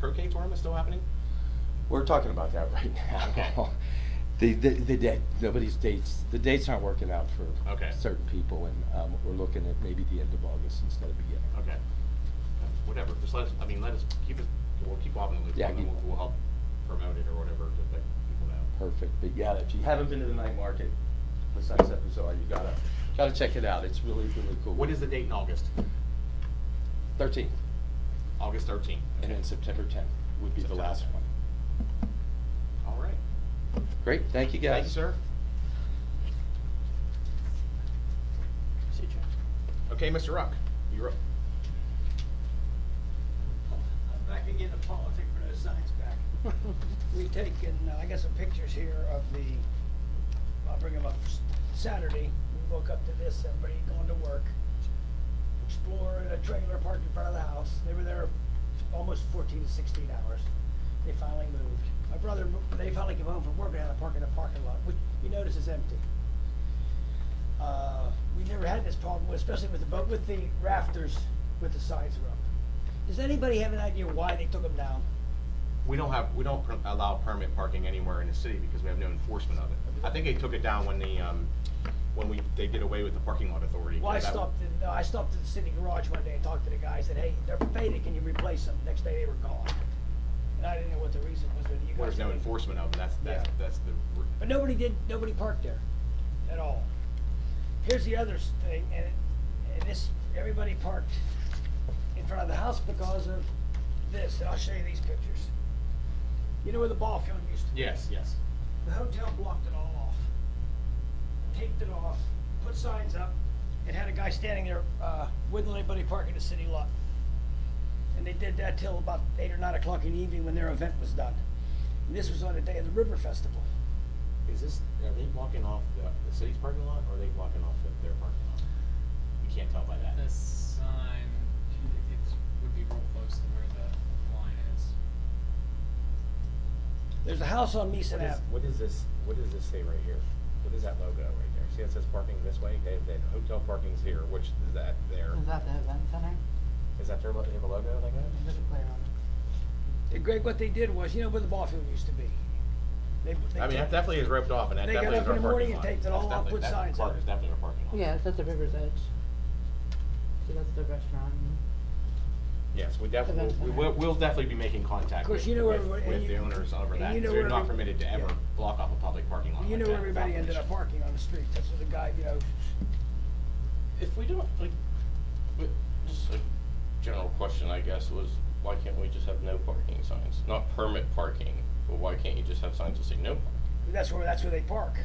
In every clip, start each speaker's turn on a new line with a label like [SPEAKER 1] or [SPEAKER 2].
[SPEAKER 1] K tournament still happening?
[SPEAKER 2] We're talking about that right now.
[SPEAKER 1] Okay.
[SPEAKER 2] The, the, the date, nobody's dates, the dates aren't working out for
[SPEAKER 1] Okay.
[SPEAKER 2] certain people, and, um, we're looking at maybe the end of August instead of beginning.
[SPEAKER 1] Okay. Whatever, just let us, I mean, let us, keep us, we'll keep Bob in the loop,
[SPEAKER 2] Yeah,
[SPEAKER 1] and then
[SPEAKER 2] keep-
[SPEAKER 1] we'll, we'll help promote it or whatever to let people know.
[SPEAKER 2] Perfect, but yeah, if you haven't been to the night market, the Sunset Bazaar, you gotta, gotta check it out, it's really, really cool.
[SPEAKER 1] What is the date in August?
[SPEAKER 2] Thirteenth,
[SPEAKER 1] August thirteenth.
[SPEAKER 2] and then September tenth would be the
[SPEAKER 1] September
[SPEAKER 2] last
[SPEAKER 1] 10th.
[SPEAKER 2] one.
[SPEAKER 1] All right.
[SPEAKER 2] Great, thank you guys.
[SPEAKER 1] Thank you, sir. Okay, Mr. Ruck, you're up.
[SPEAKER 3] I'm back again to politics, but those signs back. We've taken, uh, I got some pictures here of the, I'll bring them up, Saturday, we woke up to this, everybody going to work. Explorer in a trailer parked in front of the house, they were there almost fourteen to sixteen hours, they finally moved. My brother, mo- they finally came home from work, and had to park in the parking lot, which you notice is empty. Uh, we never had this problem, especially with the, but with the rafters, with the sides were up. Does anybody have an idea why they took them down?
[SPEAKER 1] We don't have, we don't per- allow permit parking anywhere in the city because we have no enforcement of it. I think they took it down when the, um, when we, they did away with the parking lot authority.
[SPEAKER 3] Well, I
[SPEAKER 1] That-
[SPEAKER 3] stopped, in- no, I stopped at the city garage one day and talked to the guy, I said, hey, they're faded, can you replace them? Next day, they were gone. And I didn't know what the reason was, whether you guys.
[SPEAKER 1] There's no
[SPEAKER 3] had any-
[SPEAKER 1] enforcement of it, that's, that's,
[SPEAKER 3] Yeah.
[SPEAKER 1] that's the. re-
[SPEAKER 3] But nobody did, nobody parked there at all. Here's the other s- thing, and, and this, everybody parked in front of the house because of this, and I'll show you these pictures. You know where the ball field used to be?
[SPEAKER 1] Yes, yes.
[SPEAKER 3] The hotel blocked it all off, taped it off, put signs up, and had a guy standing there, uh, wouldn't let anybody park in the city lot. And they did that till about eight or nine o'clock in the evening when their event was done. And this was on the day of the River Festival.
[SPEAKER 1] Is this, are they blocking off the, the city's parking lot or are they blocking off the- their parking lot? You can't tell by that.
[SPEAKER 4] The sign, it- it would be real close to where the line is.
[SPEAKER 3] There's a house on Meeson
[SPEAKER 1] What is,
[SPEAKER 3] Ave.
[SPEAKER 1] what is this, what does this say right here? What is that logo right there? See, it says parking this way, they, they, hotel parking's here, which is that there?
[SPEAKER 3] Mm-hmm.
[SPEAKER 5] Is that the event center?
[SPEAKER 1] Is that their, lo- they have a logo like that?
[SPEAKER 5] There's a playground.
[SPEAKER 3] And Greg, what they did was, you know where the ball field used to be? They- they
[SPEAKER 1] I mean, that
[SPEAKER 3] took-
[SPEAKER 1] definitely is roped off and that
[SPEAKER 3] They got
[SPEAKER 1] definitely is
[SPEAKER 3] up
[SPEAKER 1] our parking lot.
[SPEAKER 3] in the morning and taped it all
[SPEAKER 1] That's
[SPEAKER 3] up,
[SPEAKER 1] definitely-
[SPEAKER 3] put
[SPEAKER 1] that
[SPEAKER 3] signs
[SPEAKER 1] part
[SPEAKER 3] up.
[SPEAKER 1] is definitely our parking lot.
[SPEAKER 5] Yeah, it's at the river's edge. So that's the restaurant.
[SPEAKER 1] Yes, we definitely,
[SPEAKER 5] Event
[SPEAKER 1] we
[SPEAKER 5] center.
[SPEAKER 1] will, we'll definitely be making contact
[SPEAKER 3] Of course,
[SPEAKER 1] with,
[SPEAKER 3] you know
[SPEAKER 1] with,
[SPEAKER 3] everybody- and
[SPEAKER 1] with the
[SPEAKER 3] you-
[SPEAKER 1] owners over
[SPEAKER 3] and
[SPEAKER 1] that,
[SPEAKER 3] you
[SPEAKER 1] because
[SPEAKER 3] know
[SPEAKER 1] they're
[SPEAKER 3] where
[SPEAKER 1] not
[SPEAKER 3] every-
[SPEAKER 1] permitted to
[SPEAKER 3] yeah.
[SPEAKER 1] ever block off a public parking lot
[SPEAKER 3] You
[SPEAKER 1] like
[SPEAKER 3] know
[SPEAKER 1] that
[SPEAKER 3] where everybody
[SPEAKER 1] without
[SPEAKER 3] ended
[SPEAKER 1] permission.
[SPEAKER 3] up parking on the street, that's where the guy, you know,
[SPEAKER 6] If we don't, like, but just a general question, I guess, was why can't we just have no parking signs? Not permit parking, but why can't you just have signs that say no? parking?
[SPEAKER 3] that's where, that's where they park.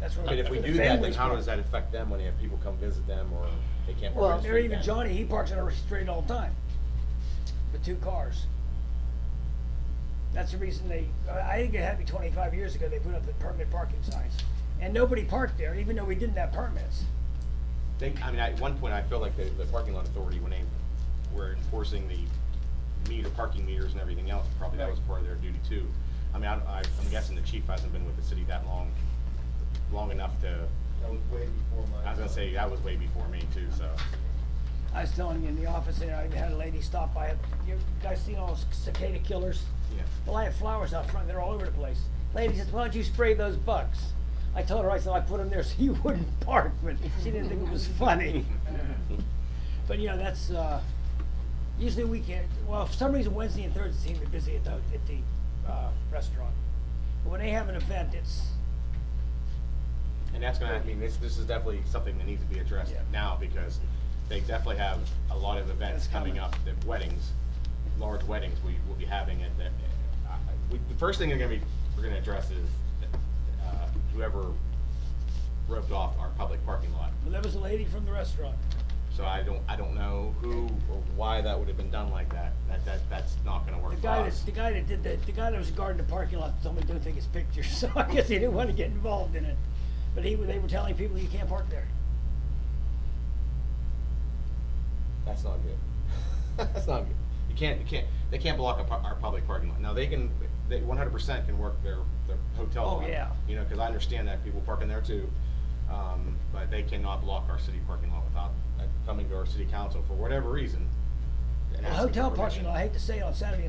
[SPEAKER 3] That's where.
[SPEAKER 1] I mean, if we
[SPEAKER 3] the
[SPEAKER 1] do that, then
[SPEAKER 3] families
[SPEAKER 1] how
[SPEAKER 3] park.
[SPEAKER 1] does that affect them when they have people come visit them or they can't park
[SPEAKER 5] Well,
[SPEAKER 1] on
[SPEAKER 3] Well,
[SPEAKER 1] the
[SPEAKER 3] there
[SPEAKER 1] street
[SPEAKER 3] even
[SPEAKER 1] then?
[SPEAKER 3] Johnny, he parks on our street all the time, with two cars. That's the reason they, I I think it happened twenty-five years ago, they put up the permit parking signs, and nobody parked there, even though we didn't have permits.
[SPEAKER 1] They, I mean, at one point, I feel like the, the parking lot authority, when they were enforcing the meter, parking meters and everything else, probably that was part of their duty too. I mean, I, I- I'm guessing the chief hasn't been with the city that long, long enough to,
[SPEAKER 7] That was way before my.
[SPEAKER 1] I was
[SPEAKER 7] time.
[SPEAKER 1] gonna say, that was way before me too, so.
[SPEAKER 3] I was telling you in the office, and I had a lady stop by, you guys seen all those cicada killers?
[SPEAKER 1] Yeah.
[SPEAKER 3] Well, I have flowers out front, they're all over the place. Lady says, why don't you spray those bugs? I told her, I said, I put them there so you wouldn't bark, but she didn't think it was funny. But, you know, that's, uh, usually we can't, well, for some reason Wednesday and Thursday seem to be busy at the, at the, uh, restaurant. But when they have an event, it's,
[SPEAKER 1] And that's gonna, I mean, this, this is definitely something that needs to be addressed
[SPEAKER 3] Yeah.
[SPEAKER 1] now, because they definitely have a lot of events
[SPEAKER 3] That's
[SPEAKER 1] coming
[SPEAKER 3] coming.
[SPEAKER 1] up, the weddings, large weddings we will be having at, that, uh, we, the first thing they're gonna be, we're gonna address is, uh, whoever roped off our public parking lot.
[SPEAKER 3] well, there was a lady from the restaurant.
[SPEAKER 1] So I don't, I don't know who or why that would have been done like that, that, that, that's not gonna
[SPEAKER 3] The
[SPEAKER 1] work for
[SPEAKER 3] guy that,
[SPEAKER 1] us.
[SPEAKER 3] the guy that did that, the guy that was guarding the parking lot told me don't take his picture, so I guess he didn't wanna get involved in it. But he, they were telling people you can't park there.
[SPEAKER 1] That's not good. That's not good. You can't, you can't, they can't block our, pu- our public parking lot. Now, they can, they one hundred percent can work their, their hotel
[SPEAKER 3] Oh,
[SPEAKER 1] lot.
[SPEAKER 3] yeah.
[SPEAKER 1] You know, cause I understand that people park in there too. Um, but they cannot block our city parking lot without uh, coming to our city council for whatever reason. and
[SPEAKER 3] A
[SPEAKER 1] asking for
[SPEAKER 3] hotel
[SPEAKER 1] permission.
[SPEAKER 3] parking lot, I hate to say it on Saturday and